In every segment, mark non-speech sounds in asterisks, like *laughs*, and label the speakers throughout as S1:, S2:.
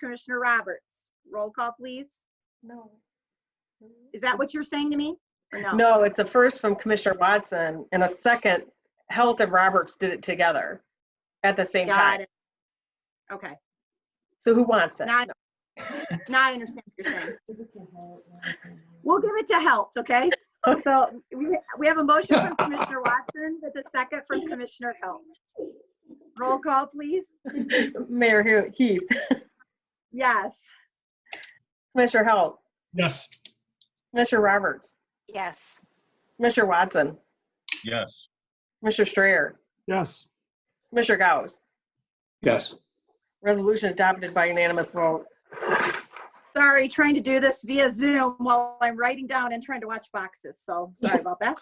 S1: Commissioner Roberts. Roll call, please.
S2: No.
S1: Is that what you're saying to me? Or no?
S3: No, it's a first from Commissioner Watson and a second, Health and Roberts did it together at the same
S1: Got
S3: time.
S1: it. Okay,
S3: So who wants it?
S1: now, I- *laughs* now I understand what you're saying. We'll give it to health, okay? So we, we have a motion from Commissioner Watson with a second from Commissioner Halt. Roll call, please.
S3: *laughs* Mayor Hu- Heath,
S1: Yes.
S3: Commissioner Health,
S4: Yes.
S3: Commissioner Roberts,
S2: Yes.
S3: Commissioner Watson,
S5: Yes.
S3: Commissioner Strayer,
S4: Yes.
S3: Commissioner Gauss.
S5: Yes.
S3: Resolution adopted by unanimous vote.
S1: Sorry, trying to do this via Zoom while I'm writing down and trying to watch boxes, so sorry about that.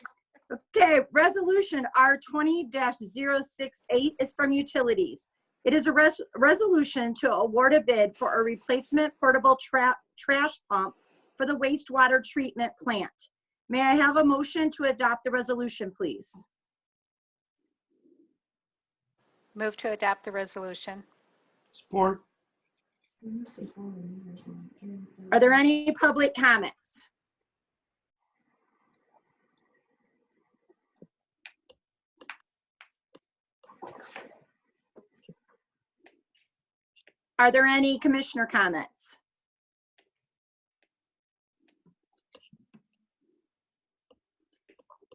S1: Okay, resolution R twenty 68 is from utilities. It is a res- resolution to award a bid for a replacement portable tra- trash pump for the wastewater treatment plant. May I have a motion to adopt the resolution, please?
S2: Move to adopt the resolution.
S4: Support.
S1: Are there any public comments? Are there any commissioner comments?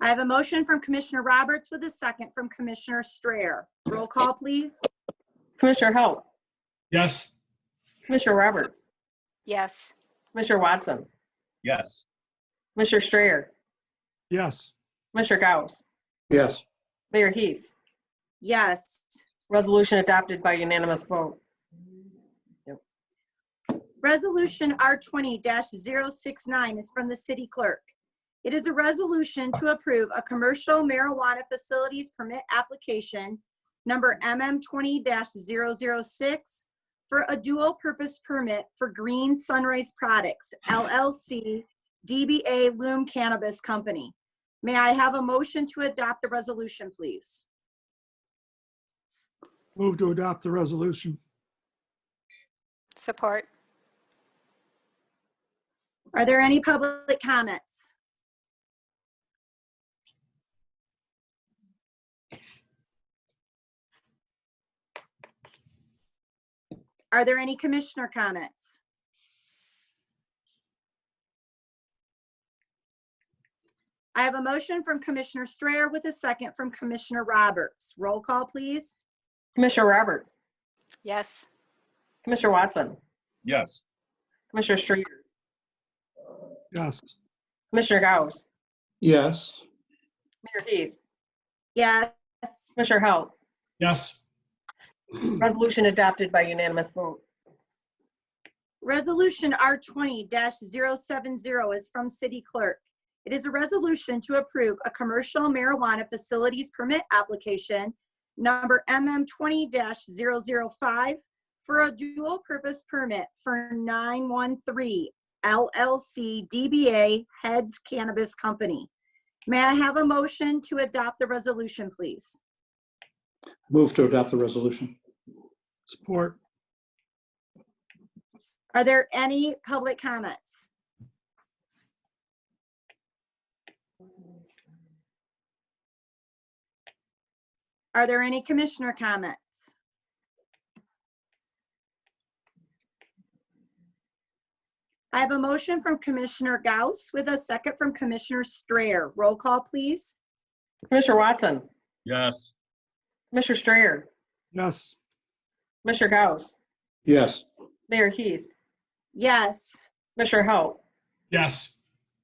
S1: I have a motion from Commissioner Roberts with a second from Commissioner Strayer. Roll call, please.
S3: Commissioner Halt,
S4: Yes.
S3: Commissioner Roberts,
S2: Yes.
S3: Commissioner Watson,
S5: Yes.
S3: Commissioner Strayer,
S4: Yes.
S3: Commissioner Gauss,
S5: Yes.
S3: Mayor Heath.
S1: Yes.
S3: Resolution adopted by unanimous vote.
S1: Resolution R twenty 69 is from the city clerk. It is a resolution to approve a commercial marijuana facilities permit application number MM twenty 6 for a dual-purpose permit for Green Sunrise Products LLC DBA Loom Cannabis Company. May I have a motion to adopt the resolution, please?
S4: Move to adopt the resolution.
S2: Support.
S1: Are there any public comments? Are there any commissioner comments? I have a motion from Commissioner Strayer with a second from Commissioner Roberts. Roll call, please.
S3: Commissioner Roberts,
S2: Yes.
S3: Commissioner Watson,
S5: Yes.
S3: Commissioner Strayer,
S4: Yes.
S3: Commissioner Gauss,
S5: Yes.
S3: Mayor Heath,
S1: Yes.
S3: Commissioner Halt.
S4: Yes.
S3: Resolution adopted by unanimous vote.
S1: Resolution R twenty 70 is from City Clerk. It is a resolution to approve a commercial marijuana facilities permit application number MM twenty 5 for a dual-purpose permit for nine one three LLC DBA Heads Cannabis Company. May I have a motion to adopt the resolution, please?
S6: Move to adopt the resolution.
S4: Support.
S1: Are there any public comments? Are there any commissioner comments? I have a motion from Commissioner Gauss with a second from Commissioner Strayer. Roll call, please.
S3: Commissioner Watson,
S5: Yes.
S3: Commissioner Strayer,
S4: Yes.
S3: Commissioner Gauss,
S6: Yes,
S3: Mayor Heath,
S1: Yes.
S3: Commissioner Halt,
S4: Yes.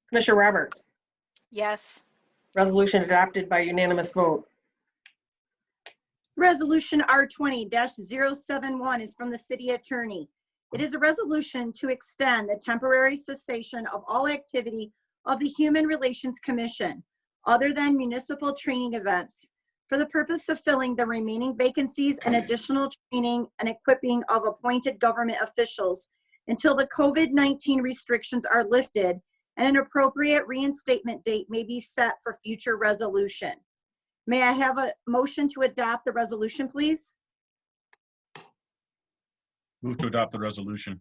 S3: Commissioner Roberts.
S2: Yes.
S3: Resolution adopted by unanimous vote.
S1: Resolution R twenty 71 is from the city attorney. It is a resolution to extend the temporary cessation of all activity of the Human Relations Commission other than municipal training events for the purpose of filling the remaining vacancies and additional training and equipping of appointed government officials until the COVID-19 restrictions are lifted and an appropriate reinstatement date may be set for future resolution. May I have a motion to adopt the resolution, please?
S5: Move to adopt the resolution.